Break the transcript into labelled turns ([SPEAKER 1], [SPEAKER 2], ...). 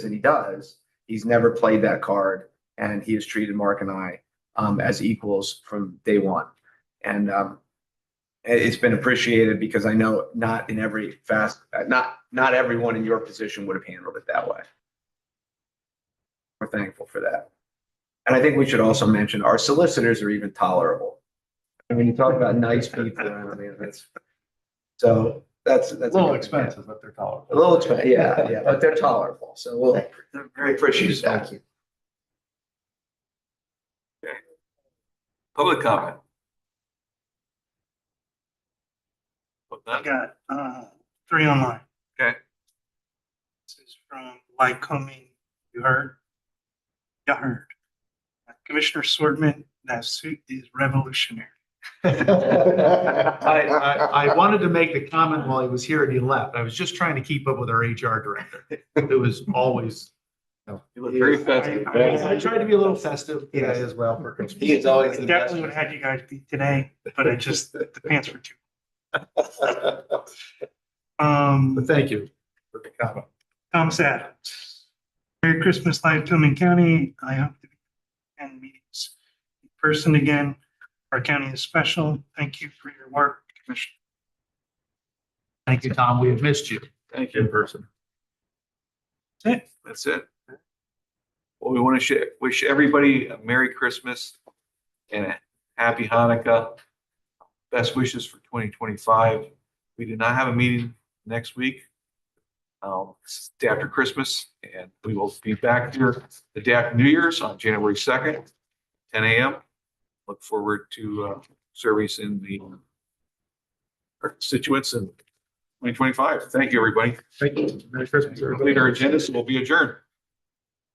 [SPEAKER 1] that he does, he's never played that card and he has treated Mark and I um, as equals from day one. And um, it- it's been appreciated because I know not in every fast, uh, not, not everyone in your position would have handled it that way. We're thankful for that. And I think we should also mention our solicitors are even tolerable. I mean, you talk about nice people, I mean, that's, so that's, that's.
[SPEAKER 2] A little expensive, but they're tolerable.
[SPEAKER 1] A little expensive, yeah, yeah, but they're tolerable, so we'll, we appreciate that.
[SPEAKER 3] Thank you.
[SPEAKER 4] Public comment. Well,
[SPEAKER 5] I
[SPEAKER 4] that-
[SPEAKER 5] got uh, three online.
[SPEAKER 4] Okay.
[SPEAKER 5] This is from Lycoming. You heard? You heard. Commissioner Swordman, that suit is revolutionary.
[SPEAKER 2] I, I, I wanted to make the comment while he was here and he left. I was just trying to keep up with our HR director. It was always.
[SPEAKER 4] You look very festive.
[SPEAKER 5] I-
[SPEAKER 2] I tried to be a little festive today as well for Christmas.
[SPEAKER 3] He is always
[SPEAKER 5] I
[SPEAKER 3] the best.
[SPEAKER 5] Definitely would have had you guys beat today, but I just, the pants were too. Um,
[SPEAKER 2] But thank you for the comment.
[SPEAKER 5] Thomas Adams. Merry Christmas, Lycoming County. I hope to attend meetings in person again. Our county is special. Thank you for your work, Commissioner.
[SPEAKER 2] Thank you, Tom. We have missed you
[SPEAKER 4] Thank
[SPEAKER 2] in
[SPEAKER 4] you.
[SPEAKER 2] person.
[SPEAKER 5] That's it.
[SPEAKER 4] That's it. Well, we want to share, wish everybody a Merry Christmas and a Happy Hanukkah. Best wishes for twenty twenty-five. We do not have a meeting next week. Um, it's the day after Christmas and we will be back here the day after New Year's on January second, ten AM. Look forward to, uh, service in the our constituents in twenty twenty-five. Thank you, everybody.
[SPEAKER 2] Thank you. Merry Christmas, everybody.
[SPEAKER 4] Complete our agenda, so we'll be adjourned.